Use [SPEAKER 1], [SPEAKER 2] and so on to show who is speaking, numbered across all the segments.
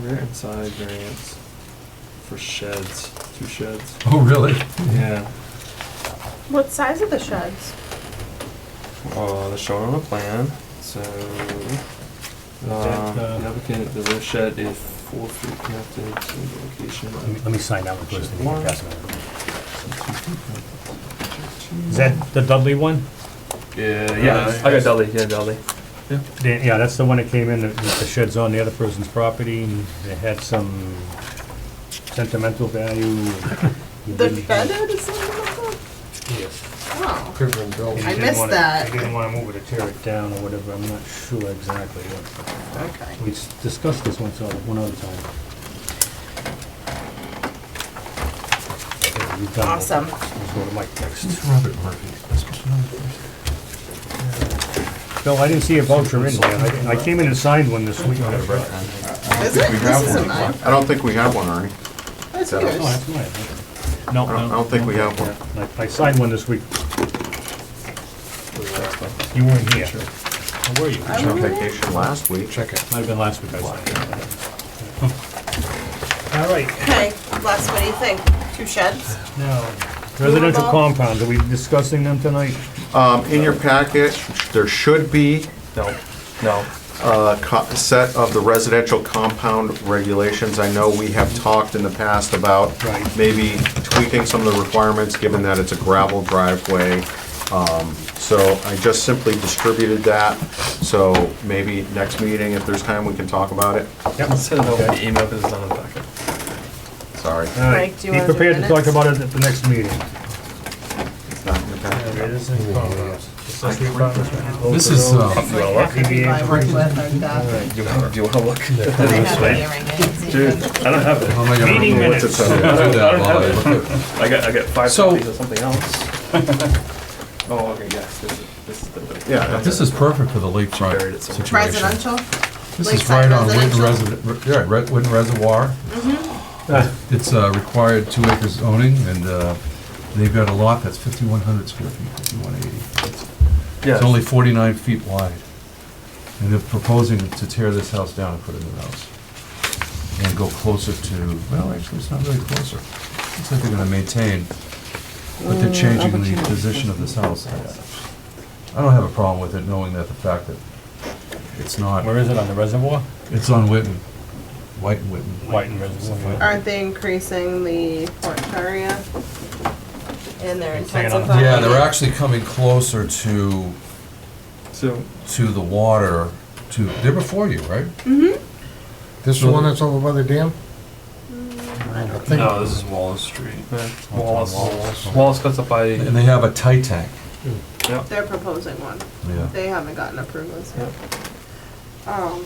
[SPEAKER 1] rear and side variance for sheds, two sheds.
[SPEAKER 2] Oh, really?
[SPEAKER 1] Yeah,
[SPEAKER 3] What size are the sheds?
[SPEAKER 1] uh, they're shown on a plan, so, uh, the applicant, the rear shed is four feet connected to the location.
[SPEAKER 4] Let me-
[SPEAKER 1] of
[SPEAKER 4] let me sign that one first. and then pass it on.
[SPEAKER 1] two-
[SPEAKER 4] Is that the Dudley one?
[SPEAKER 1] Yeah, yeah, I got Dudley, yeah, Dudley.
[SPEAKER 4] The- Yeah, that's the one that came in, that the shed's on the other person's property, and it had some sentimental value. and he
[SPEAKER 3] The
[SPEAKER 4] didn't-
[SPEAKER 3] bedded is something like that?
[SPEAKER 4] Yes.
[SPEAKER 3] Oh.
[SPEAKER 2] Quiver and
[SPEAKER 4] And
[SPEAKER 2] Bill.
[SPEAKER 4] he
[SPEAKER 3] I
[SPEAKER 4] didn't
[SPEAKER 3] missed
[SPEAKER 4] wanna-
[SPEAKER 3] that.
[SPEAKER 4] He didn't want to move it or tear it down or whatever, I'm not sure exactly what.
[SPEAKER 3] Okay.
[SPEAKER 4] We s- discussed this one, so one other time. Okay, we've done it.
[SPEAKER 3] Awesome.
[SPEAKER 4] Let's go to Mike next.
[SPEAKER 2] It's Robert Murphy. That's supposed to know the person.
[SPEAKER 4] Bill, I didn't see a voucher in there, I I came in and signed one this week. Oh,
[SPEAKER 3] Is it? This isn't mine.
[SPEAKER 5] I don't think we have one, Ernie.
[SPEAKER 3] That's
[SPEAKER 5] Yeah.
[SPEAKER 3] yours.
[SPEAKER 4] that's mine. okay.
[SPEAKER 2] No,
[SPEAKER 5] I don't, I don't think we have one.
[SPEAKER 4] I I signed one this week. You weren't here. Where were you?
[SPEAKER 5] I was on vacation last week.
[SPEAKER 2] Check it.
[SPEAKER 4] Might have been last week I signed. All right,
[SPEAKER 3] Okay, Les, what do you think? Two sheds?
[SPEAKER 4] now, residential
[SPEAKER 3] Doable.
[SPEAKER 4] compounds, are we discussing them tonight?
[SPEAKER 5] Um, in your packet, there should be
[SPEAKER 1] No, no,
[SPEAKER 5] a co- set of the residential compound regulations. I know we have talked in the past about
[SPEAKER 4] Right.
[SPEAKER 5] maybe tweaking some of the requirements, given that it's a gravel driveway. Um, So I just simply distributed that, so maybe next meeting, if there's time, we can talk about it.
[SPEAKER 4] Yep.
[SPEAKER 1] I'll send it over via email because it's not in the packet.
[SPEAKER 5] Sorry,
[SPEAKER 4] All right,
[SPEAKER 3] Mike, do you
[SPEAKER 4] be
[SPEAKER 3] wanna do
[SPEAKER 4] prepared to talk
[SPEAKER 3] minutes?
[SPEAKER 4] about it at the next meeting.
[SPEAKER 5] it's not in the packet.
[SPEAKER 2] This is, uh,
[SPEAKER 3] Like half the people I work with are deaf.
[SPEAKER 1] Do you want to look?
[SPEAKER 3] They have hearing aids.
[SPEAKER 1] I don't have it.
[SPEAKER 2] oh my God, I don't
[SPEAKER 4] Meeting
[SPEAKER 2] know what
[SPEAKER 4] minutes.
[SPEAKER 2] to tell you. I do that while I look at-
[SPEAKER 1] I got, I got five
[SPEAKER 2] So-
[SPEAKER 1] copies of something else. Oh, okay, yes, this is, this is the.
[SPEAKER 5] Yeah, that's
[SPEAKER 2] This is perfect for the
[SPEAKER 1] Buried it
[SPEAKER 2] lakefront
[SPEAKER 1] somewhere.
[SPEAKER 2] situation.
[SPEAKER 3] Residential?
[SPEAKER 2] This is
[SPEAKER 3] Lakeside
[SPEAKER 2] right on Witten
[SPEAKER 3] residential.
[SPEAKER 2] Reservoir, yeah, right, Witten Reservoir.
[SPEAKER 4] Ah,
[SPEAKER 2] It's uh, required two acres owning, and uh, they've got a lot that's 5,100 square feet, 5,180. It's- It's only 49 feet wide. And they're proposing to tear this house down and put a new house. And go closer to, well, actually, it's not really closer. It's like they're gonna maintain, but they're changing the position of this house. I don't have a problem with it, knowing that the fact that it's not,
[SPEAKER 4] Where is it, on the reservoir?
[SPEAKER 2] it's on Witten, White and Witten.
[SPEAKER 4] White and Reservoir. yeah.
[SPEAKER 3] Aren't they increasing the porch area? And they're
[SPEAKER 4] Hang on.
[SPEAKER 3] intensifying?
[SPEAKER 2] Yeah, they're
[SPEAKER 3] it?
[SPEAKER 2] actually coming closer to,
[SPEAKER 1] So,
[SPEAKER 2] to the water, to, they're before you, right?
[SPEAKER 6] This is the one that's over by the dam? I think-
[SPEAKER 1] Oh,
[SPEAKER 7] No, this is Wallace Street.
[SPEAKER 1] Wallace, Wallace cuts up by,
[SPEAKER 2] And they have a tight tank.
[SPEAKER 3] They're proposing one.
[SPEAKER 2] Yeah.
[SPEAKER 3] They haven't gotten approvals yet. Um,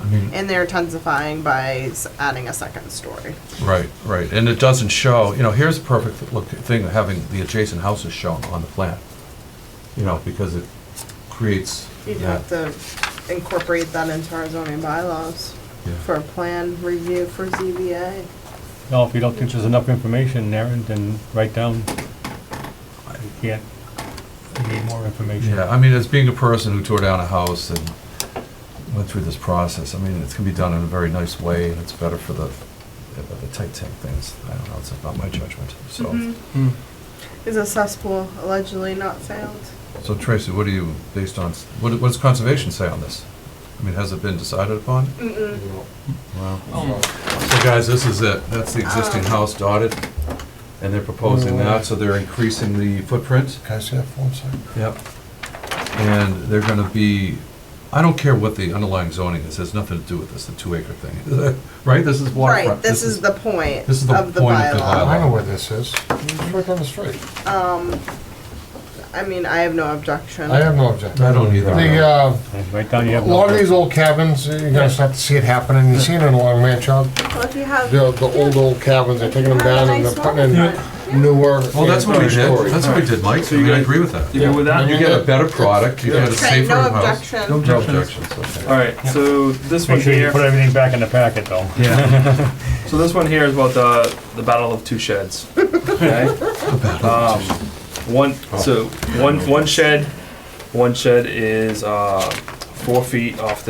[SPEAKER 2] I mean,
[SPEAKER 3] and they're intensifying by s- adding a second story.
[SPEAKER 2] Right, right, and it doesn't show, you know, here's a perfect look, thing, of having the adjacent houses shown on the plan. You know, because it creates,
[SPEAKER 3] You'd
[SPEAKER 2] yeah,
[SPEAKER 3] have to incorporate that into our zoning bylaws
[SPEAKER 2] Yeah.
[SPEAKER 3] for a plan review for ZBA.
[SPEAKER 4] No, if you don't think there's enough information, Aaron, then write down, you can't, you need more information.
[SPEAKER 2] yeah, I mean, as being a person who tore down a house and went through this process, I mean, it's gonna be done in a very nice way, and it's better for the, uh, the tight tank things, I don't know, it's not my judgment, so.
[SPEAKER 3] Mm-hmm.
[SPEAKER 1] Hmm.
[SPEAKER 3] Is a cesspool allegedly not found?
[SPEAKER 2] So Tracy, what do you, based on, what, what does conservation say on this? I mean, has it been decided upon?
[SPEAKER 3] Mm-mm.
[SPEAKER 2] Wow. So guys, this is it, that's the existing
[SPEAKER 3] Ah.
[SPEAKER 2] house dotted, and they're proposing that, so they're increasing the footprint.
[SPEAKER 6] Can I see that form, sir?
[SPEAKER 2] Yep. And they're gonna be, I don't care what the underlying zoning is, has nothing to do with this, the two acre thing, right? This is waterfront.
[SPEAKER 3] Right, this is the point
[SPEAKER 2] this is the
[SPEAKER 3] of the
[SPEAKER 2] point of the
[SPEAKER 3] bylaw. Um,
[SPEAKER 6] I know where this is. It's right down the street.
[SPEAKER 3] I mean, I have no objection.
[SPEAKER 6] I have no objection.
[SPEAKER 2] I don't either.
[SPEAKER 6] The, uh,
[SPEAKER 4] And Write down, you
[SPEAKER 6] a
[SPEAKER 4] have.
[SPEAKER 6] lot of these old cabins, you're gonna start to see it happening. You've seen it along Manchester.
[SPEAKER 3] Well, if you have.
[SPEAKER 6] The, the old, old cabins, they're taking them down and they're putting in newer.
[SPEAKER 2] Well, that's what we did,
[SPEAKER 6] three-story.
[SPEAKER 2] that's what we did, Mike, I mean, I agree with that.
[SPEAKER 1] you good with that?
[SPEAKER 2] You get a better product, you get a
[SPEAKER 3] Okay,
[SPEAKER 2] safer
[SPEAKER 3] no
[SPEAKER 2] house.
[SPEAKER 3] objection.
[SPEAKER 2] No objections, okay.
[SPEAKER 1] Alright, so this one
[SPEAKER 4] Make sure you
[SPEAKER 1] here,
[SPEAKER 4] put everything back in the packet, though.
[SPEAKER 1] yeah. So this one here is about the, the battle of two sheds. Okay? Um, One, so, one, one shed, one shed is, uh, four feet off the